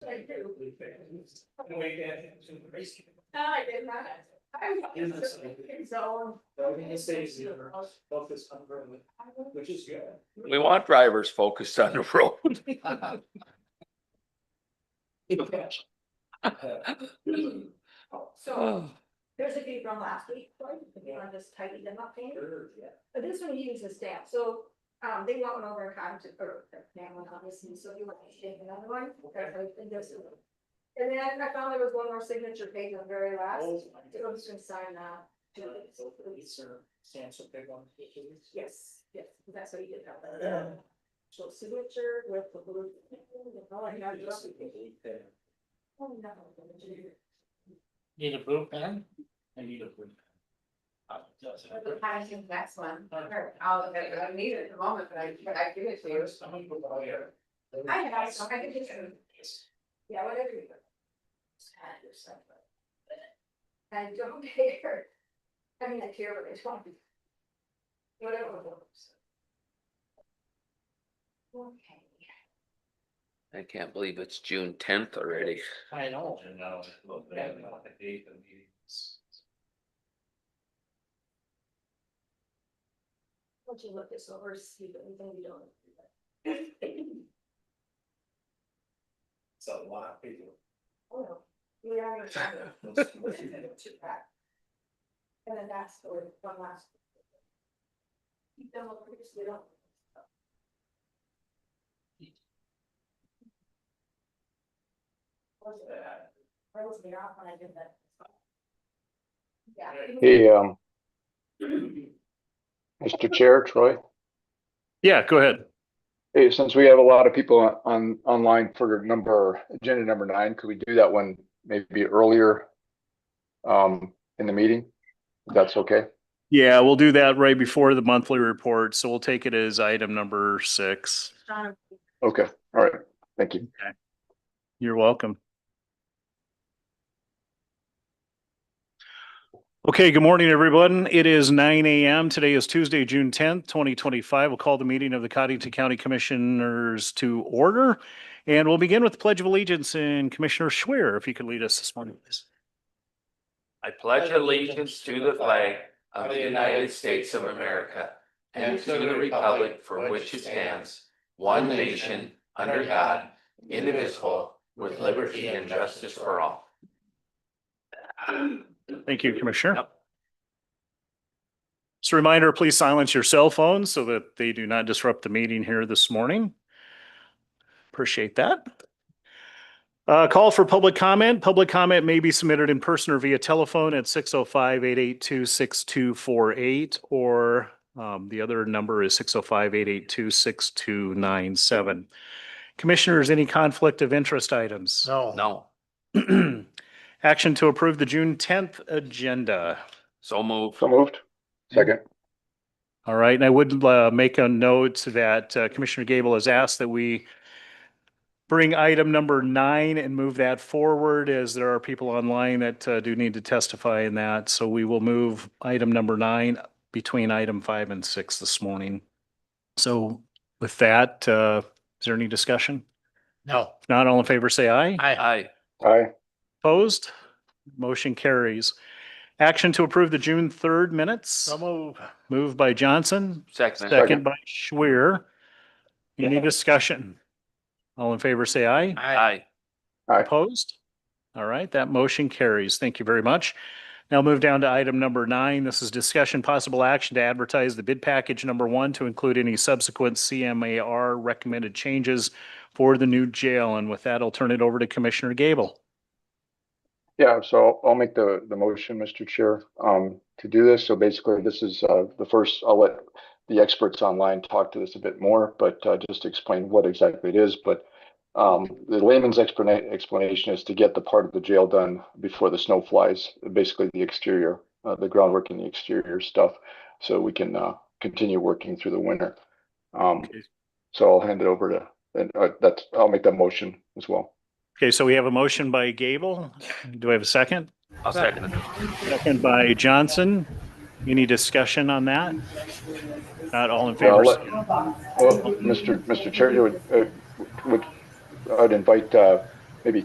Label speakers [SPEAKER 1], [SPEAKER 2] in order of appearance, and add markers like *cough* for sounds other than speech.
[SPEAKER 1] Wait, that to raise.
[SPEAKER 2] No, I did not. I
[SPEAKER 1] In
[SPEAKER 2] was
[SPEAKER 1] this.
[SPEAKER 2] in zone.
[SPEAKER 1] I mean, it saves you focus on growing,
[SPEAKER 2] I was-
[SPEAKER 1] which is good.
[SPEAKER 3] We want drivers focused on *laughs* the road. *laughs* *sighs* Oh.
[SPEAKER 2] So there's a few from last week, right? If you want to just tidy them up, Andrew.
[SPEAKER 1] Sure, yeah.
[SPEAKER 2] But this one uses staff, so, um, they want one over in Cottington, or, that one obviously, so you want to take another one, okay, I think this is- And then I found there was one more signature page on the very last,
[SPEAKER 1] Oh,
[SPEAKER 2] so I'm just gonna sign that.
[SPEAKER 1] So, it's, uh, Stands up big on. the issues.
[SPEAKER 2] Yes, yes, that's what you did, that one. So signature with the blue. Oh, I know, you don't- oh, no.
[SPEAKER 4] Need a blue pen? I need a blue
[SPEAKER 5] For the passion, that's one, or all of it, I need it at the moment, but I, but I give it to you.
[SPEAKER 2] I have, some, I can just, yeah, whatever you. want. I don't care. I mean, I care, but I don't. Whatever works. Okay.
[SPEAKER 3] I can't believe it's June tenth already.
[SPEAKER 4] I know.
[SPEAKER 2] Why don't you look this over, see if anything you don't.
[SPEAKER 1] It's a lot of people.
[SPEAKER 2] Oh, no. We are gonna try to- to that. And then that's the one one last. Keep them up, because they don't. Was it, uh, Where was it off when I did that? Yeah.
[SPEAKER 6] Hey, um, Mr. Chair, Troy.
[SPEAKER 7] Yeah, go ahead.
[SPEAKER 6] Hey, since we have a lot of people on- on, online for number, agenda number nine, could we do that one maybe earlier? Um, in the meeting? If That's okay?
[SPEAKER 7] Yeah, we'll do that right before the monthly report. So we'll take it as item number six.
[SPEAKER 2] Um,
[SPEAKER 6] Okay, all right, thank you.
[SPEAKER 7] You're welcome. Okay, good morning, everyone. It is nine AM. Today is Tuesday, June tenth, twenty twenty-five. We'll call the meeting of the Cottington County Commissioners to order. And we'll begin with the Pledge of Allegiance and Commissioner Schwer, if you could lead us this morning, please.
[SPEAKER 3] I pledge allegiance to the flag of the United States of America and to the republic for which it stands, one nation, under God, indivisible, with liberty and justice for all.
[SPEAKER 7] Thank you, Commissioner.
[SPEAKER 3] Yep.
[SPEAKER 7] Just a reminder, please silence your cell phones so that they do not disrupt the meeting here this morning. Appreciate that. Uh, call for public comment. Public comment may be submitted in person or via telephone at 605-882-6248 or um, the other number is 605-882-6297. Commissioners, any conflict of interest items?
[SPEAKER 4] No.
[SPEAKER 3] No,
[SPEAKER 7] *clears throat* Action to approve the June tenth agenda.
[SPEAKER 3] so move.
[SPEAKER 6] So moved. Second,
[SPEAKER 7] All right, and I would uh, make a note that uh, Commissioner Gable has asked that we bring item number nine and move that forward as there are people online that uh, do need to testify in that. So we will move item number nine between item five and six this morning. So with that, uh, is there any discussion?
[SPEAKER 4] No.
[SPEAKER 7] If not, all in favor, say aye.
[SPEAKER 4] I,
[SPEAKER 3] Aye,
[SPEAKER 6] aye,
[SPEAKER 7] Opposed? Motion carries. Action to approve the June third minutes.
[SPEAKER 4] so move.
[SPEAKER 7] Moved by Johnson,
[SPEAKER 3] second.
[SPEAKER 7] second by Schwer. Any discussion? All in favor, say aye.
[SPEAKER 4] I,
[SPEAKER 3] Aye,
[SPEAKER 7] Opposed? All right, that motion carries. Thank you very much. Now move down to item number nine. This is discussion possible action to advertise the bid package number one to include any subsequent CMAR recommended changes for the new jail. And with that, I'll turn it over to Commissioner Gable.
[SPEAKER 6] yeah, so I'll make the, the motion, Mr. Chair, um, to do this. So basically, this is, uh, the first, I'll let the experts online talk to this a bit more, but, uh, just to explain what exactly it is, but Um, the layman's explana- explanation is to get the part of the jail done before the snow flies, basically the exterior, uh, the groundwork and the exterior stuff, so we can uh, continue working through the winter. Um, so I'll hand it over to, and uh, that's, I'll make that motion as well.
[SPEAKER 7] Okay, so we have a motion by Gable. Do I have a second?
[SPEAKER 3] I'll second it.
[SPEAKER 7] Second by Johnson. Any discussion on that? Not all in
[SPEAKER 6] Yeah, I'll
[SPEAKER 7] favor.
[SPEAKER 6] let- Well, Mr. Mr. Chair, you would, uh, would I'd invite uh,